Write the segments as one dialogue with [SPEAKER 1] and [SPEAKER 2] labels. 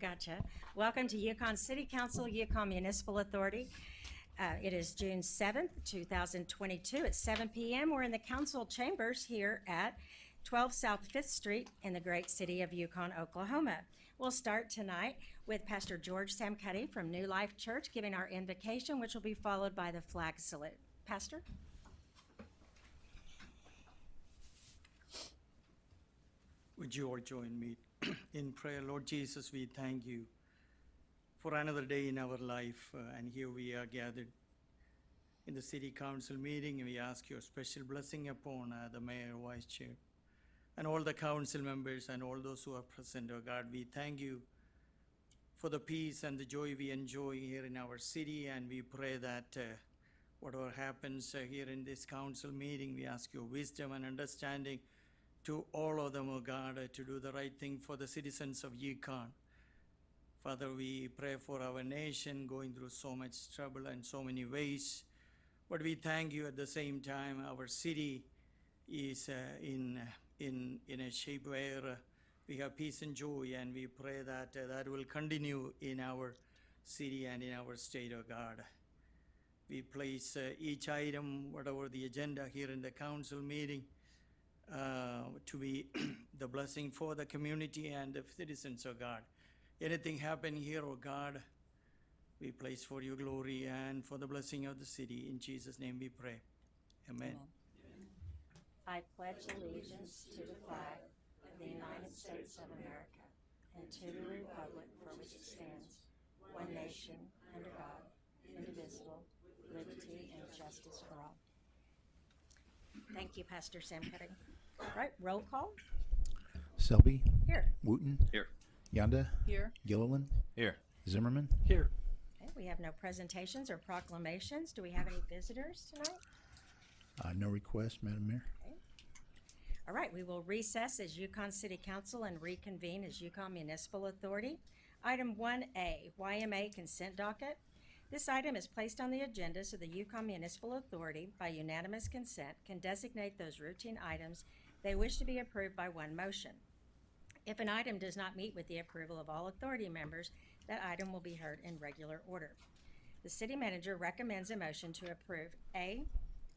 [SPEAKER 1] Gotcha. Welcome to Yukon City Council, Yukon Municipal Authority. Uh, It is June 7th, 2022, at 7 PM. We're in the council chambers here at 12 South Fifth Street in the great city of Yukon, Oklahoma. We'll start tonight with Pastor George Samcutty from New Life Church giving our invocation, which will be followed by the flag salute. Pastor?
[SPEAKER 2] Would you all join me in prayer? Lord Jesus, we thank you for another day in our life, uh, and here we are gathered in the city council meeting. We ask your special blessing upon uh, the mayor, vice chair, and all the council members and all those who are present. Oh God, we thank you for the peace and the joy we enjoy here in our city, and we pray that uh, whatever happens uh, here in this council meeting, we ask your wisdom and understanding to all of them, O God, uh, to do the right thing for the citizens of Yukon. Father, we pray for our nation going through so much trouble in so many ways. But we thank you at the same time, our city is uh, in, in, in a shape where uh, we have peace and joy, and we pray that uh, that will continue in our city and in our state, O God. We place uh, each item, whatever the agenda here in the council meeting, uh, to be the blessing for the community and the citizens, oh God. Anything happen here, oh God, we place for your glory and for the blessing of the city. In Jesus' name we pray. Amen.
[SPEAKER 1] I pledge allegiance to the flag of the United States of America and to the republic for which it stands, one nation, under God, indivisible, with liberty and justice for all. Thank you, Pastor Sam Cutting. All right, roll call.
[SPEAKER 3] Selby,
[SPEAKER 1] Here.
[SPEAKER 3] Wooten,
[SPEAKER 4] Here.
[SPEAKER 3] Yonda,
[SPEAKER 5] Here.
[SPEAKER 3] Gilliland,
[SPEAKER 4] Here.
[SPEAKER 3] Zimmerman.
[SPEAKER 4] Here.
[SPEAKER 1] Okay, we have no presentations or proclamations. Do we have any visitors tonight?
[SPEAKER 3] Uh, no request, Madam Mayor.
[SPEAKER 1] All right, we will recess as Yukon City Council and reconvene as Yukon Municipal Authority. Item 1A, YMA Consent Docket. This item is placed on the agenda so the Yukon Municipal Authority, by unanimous consent, can designate those routine items they wish to be approved by one motion. If an item does not meet with the approval of all authority members, that item will be heard in regular order. The city manager recommends a motion to approve A,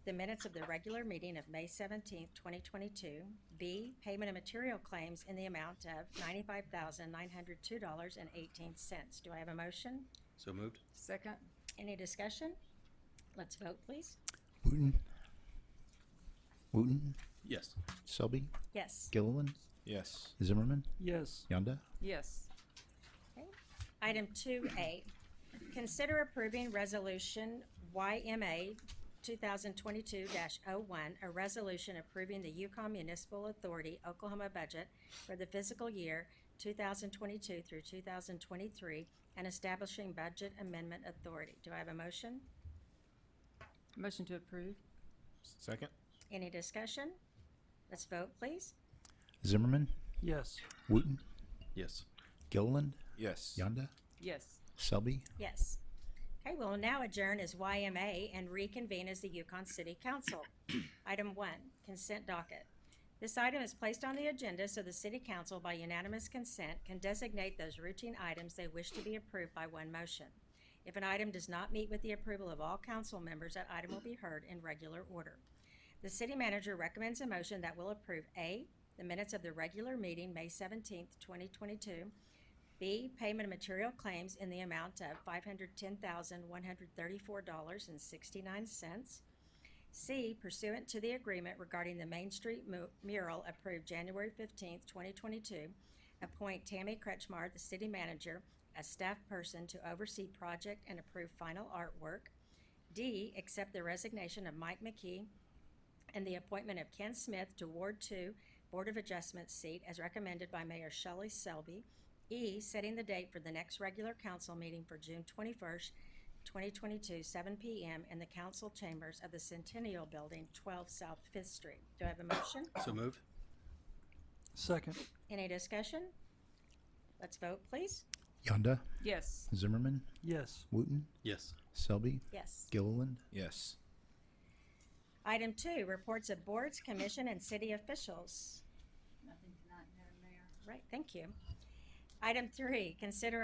[SPEAKER 1] the minutes of the regular meeting of May seventeenth, twenty twenty-two. B, payment of material claims in the amount of ninety-five thousand nine hundred two dollars and eighteen cents. Do I have a motion?
[SPEAKER 4] So moved?
[SPEAKER 5] Second.
[SPEAKER 1] Any discussion? Let's vote, please.
[SPEAKER 3] Wooten, Wooten,
[SPEAKER 4] Yes.
[SPEAKER 3] Selby,
[SPEAKER 1] Yes.
[SPEAKER 3] Gilliland,
[SPEAKER 4] Yes.
[SPEAKER 3] Zimmerman,
[SPEAKER 4] Yes.
[SPEAKER 3] Yonda.
[SPEAKER 5] Yes.
[SPEAKER 1] Okay. Item two A, consider approving resolution YMA two thousand twenty-two oh one a resolution approving the Yukon Municipal Authority Oklahoma budget for the fiscal year two thousand twenty-two through two thousand twenty-three and establishing budget amendment authority. Do I have a motion?
[SPEAKER 5] Motion to approve?
[SPEAKER 4] Second?
[SPEAKER 1] Any discussion? Let's vote, please.
[SPEAKER 3] Zimmerman,
[SPEAKER 4] Yes.
[SPEAKER 3] Wooten,
[SPEAKER 4] Yes.
[SPEAKER 3] Gilliland,
[SPEAKER 4] Yes.
[SPEAKER 3] Yonda,
[SPEAKER 5] Yes.
[SPEAKER 3] Selby,
[SPEAKER 1] Yes. Okay, we'll now adjourn as YMA and reconvene as the Yukon City Council. Item one, consent docket. This item is placed on the agenda so the city council by unanimous consent can designate those routine items they wish to be approved by one motion. If an item does not meet with the approval of all council members, that item will be heard in regular order. The city manager recommends a motion that will approve A, the minutes of the regular meeting, May seventeenth, twenty twenty-two, B, payment of material claims in the amount of five hundred ten thousand, one hundred thirty-four dollars and sixty-nine cents. C, pursuant to the agreement regarding the Main Street mu- mural approved January fifteenth, twenty twenty-two, appoint Tammy Kretschmar, the city manager, as staff person to oversee project and approve final artwork. D, accept the resignation of Mike McKee and the appointment of Ken Smith to Ward Two Board of Adjustment seat as recommended by Mayor Shelley Selby. E, setting the date for the next regular council meeting for June twenty-first, twenty twenty-two, seven PM in the council chambers of the Centennial Building, twelve South Fifth Street. Do I have a motion?
[SPEAKER 4] So moved?
[SPEAKER 6] Second,
[SPEAKER 1] Any discussion? Let's vote, please.
[SPEAKER 3] Yonda,
[SPEAKER 5] Yes.
[SPEAKER 3] Zimmerman,
[SPEAKER 6] yes.
[SPEAKER 3] Wooten,
[SPEAKER 4] Yes.
[SPEAKER 3] Selby,
[SPEAKER 1] Yes.
[SPEAKER 3] Gilliland,
[SPEAKER 4] Yes.
[SPEAKER 1] Item two, reports of boards, commission, and city officials. Nothing tonight, Madam Mayor. Right, thank you. Item three, consider